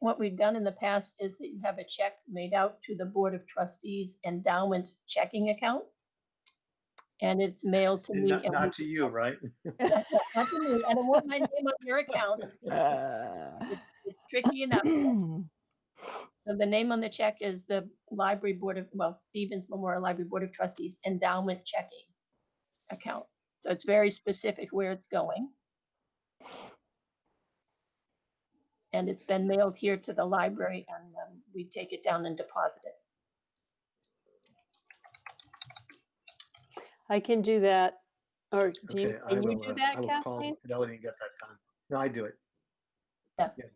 what we've done in the past is that you have a check made out to the Board of Trustees Endowment Checking Account. And it's mailed to me. Not, and not to you, right? we- not to me. I don't want my name on your account. Uh, It's it's tricky enough. So The name on the check is the Library Board of, well, Stevens Memorial Library Board of Trustees Endowment Checking Account. So it's very specific where it's going. And it's been mailed here to the library and um, we take it down and deposit it. I can do that. Or do Okay, you, I can you will, do uh, that, I will Kathleen? call Fidelity and get that done. No, I do it.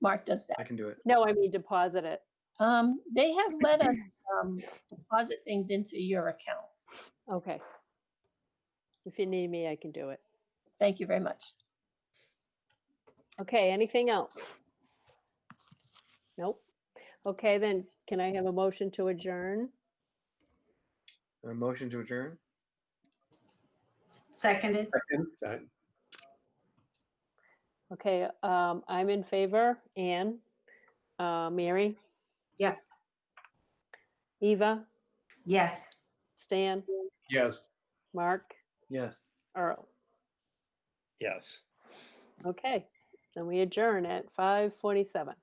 Mark does I that. can do it. No, I mean deposit it. Um, they have let us um, deposit things into your account. Okay. If you need me, I can do it. Thank you very much. Okay, anything else? Nope. Okay, then can I have a motion to adjourn? A motion to adjourn? Seconded. Okay, um, I'm in favor. Anne? Uh, Mary? Yes. Eva? Yes. Stan? Yes. Mark? Yes. Earl? Yes. Okay, then we adjourn at 5:47.